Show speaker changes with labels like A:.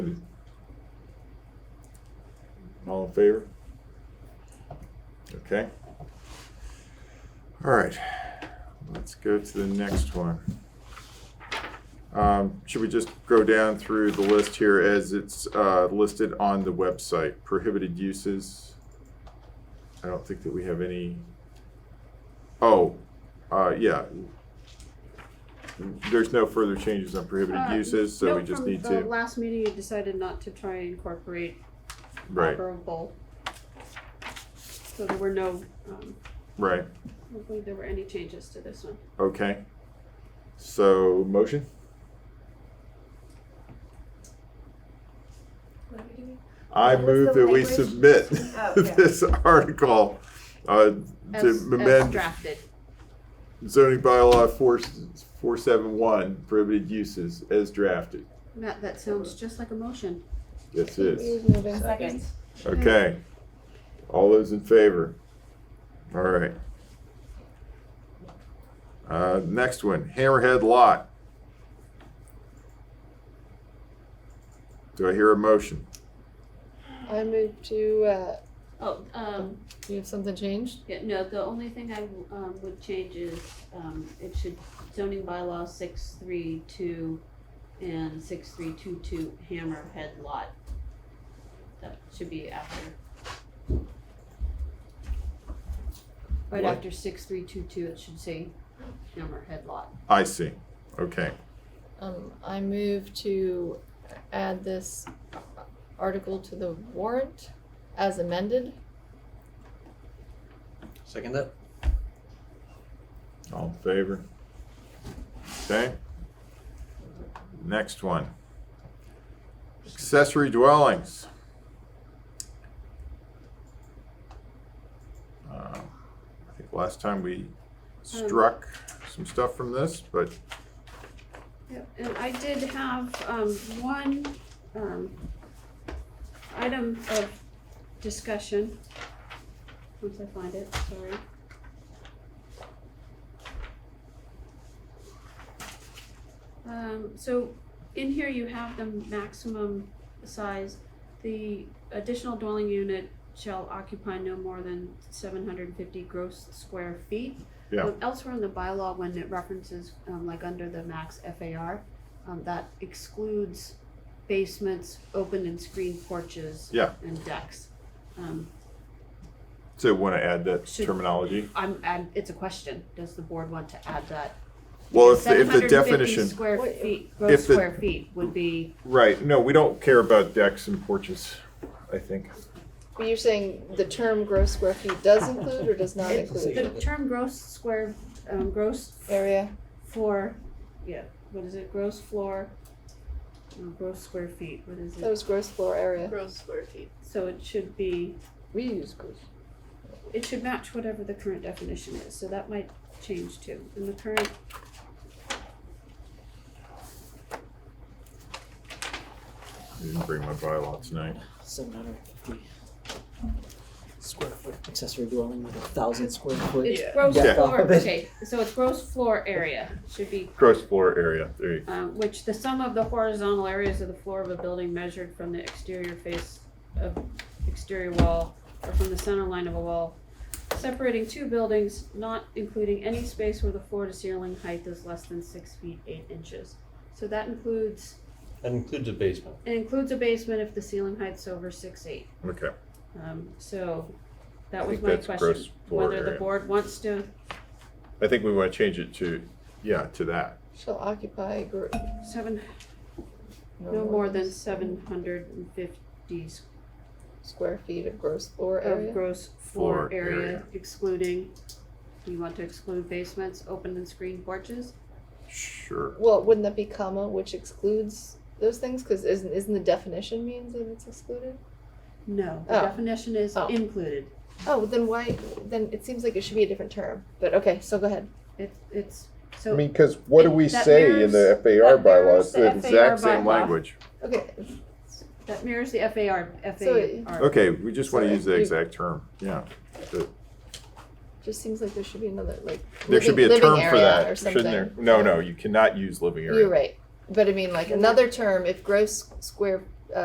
A: All in favor? Okay. All right, let's go to the next one. Um, Should we just go down through the list here as it's uh, listed on the website? Prohibited uses. I don't think that we have any. Oh, uh, yeah. There's no further changes on prohibited
B: Uh,
A: uses, so
B: no,
A: we just
B: from
A: need
B: the
A: to,
B: Last meeting, you decided not to try and incorporate
A: right,
B: operable. So there were no, um,
A: right,
B: I don't believe there were any changes to this one.
A: okay. So, motion?
C: What are we doing?
A: I
C: What's
A: move
C: the
A: that we
C: language?
A: submit
C: Oh, yeah.
A: this article uh, to
B: As, as
A: amend
B: drafted.
A: zoning bylaw four, four seven one, prohibited uses as drafted.
B: Matt, that sounds just like a motion.
A: Yes, it is.
C: Second.
A: Okay. All those in favor? All right. Uh, next one, Hammerhead Lot. Do I hear a motion?
D: I moved to, uh,
B: Oh, um,
D: you have something changed?
B: yeah, no, the only thing I, w- um, would change is, um, it should zoning bylaw six three two and six three two two hammerhead lot. That should be after.
A: What?
B: Right after six three two two, it should say hammerhead lot.
A: I see. Okay.
D: Um, I moved to add this article to the warrant as amended.
E: Second that?
A: All in favor? Okay. Next one. Accessory dwellings. Uh, I think last time we struck some stuff from this, but
B: Yep, and I did have, um, one, um, item of discussion. Once I find it, sorry. Um, so in here you have the maximum size. The additional dwelling unit shall occupy no more than seven hundred and fifty gross square feet.
A: Yeah.
B: Um, Elsewhere in the bylaw, when it references, um, like under the max FAR, um, that excludes basements, open and screened porches.
A: Yeah.
B: And decks. Um,
A: so want to add that
B: Should-
A: terminology?
B: I'm, i it's a question. Does the board want to add that?
A: Well, if, the- if the
B: 750
A: definition,
B: Square
D: Wait,
B: feet, gross
A: if the-
B: square feet would be,
A: right, no, we don't care about decks and porches, I think.
D: But you're saying the term gross square feet does include or does not
B: It-
D: include
B: the term gross square, um, gross
D: area?
B: floor, yeah, what is it? Gross floor, uh, gross square feet, what is
D: That
B: it?
D: was gross floor area.
C: Gross square feet.
B: So it should be.
D: We use gross.
B: it should match whatever the current definition is, so that might change too. And the current.
A: I didn't bring my bylaw tonight.
F: seven hundred fifty square foot accessory dwelling with a thousand square foot.
B: It's
C: Yeah.
B: gross
A: Yeah.
B: floor, okay, so it's gross floor area, should be,
A: Gross floor area, there you,
B: um, which the sum of the horizontal areas of the floor of a building measured from the exterior face of exterior wall or from the center line of a wall, separating two buildings, not including any space where the floor to ceiling height is less than six feet eight inches. So that includes,
E: That includes a basement.
B: it includes a basement if the ceiling height's over six eight.
A: okay.
B: Um, so
A: I
B: that was
A: think
B: my
A: that's
B: question,
A: gross floor
B: whether the
A: area.
B: board wants to,
A: I think we want to change it to, yeah, to that.
D: Shall occupy gr-
B: seven, no more than seven hundred and fifty
D: Square feet of gross floor
B: of
D: area.
B: gross floor
A: Floor
B: area
A: area.
B: excluding, do you want to exclude basements, open and screened porches?
A: Sure.
D: Well, wouldn't that be comma, which excludes those things? Cause isn't, isn't the definition means that it's excluded?
B: No, the
D: Oh.
B: definition is
D: Oh.
B: included,
D: Oh, then why, then it seems like it should be a different term, but okay, so go ahead.
B: it's, it's,
G: I
B: so,
G: mean, because what do
B: It-
G: we
B: that
G: say in the FAR
B: that mirrors
G: bylaw? It's
B: the
G: the exact
B: FAR
G: same
B: bylaw.
G: language.
D: Okay,
B: that mirrors the FAR,
D: So it-
B: FAR.
A: Okay, we just want to
D: So
A: use the
D: you-
A: exact term, yeah.
D: just seems like there should be another, like.
A: There should
D: living-
A: be a
D: living
A: term for
D: area
A: that,
D: or
A: shouldn't there?
D: something.
A: No, no, you cannot use living
D: You're
A: area.
D: right, but I mean, like, another term, if gross square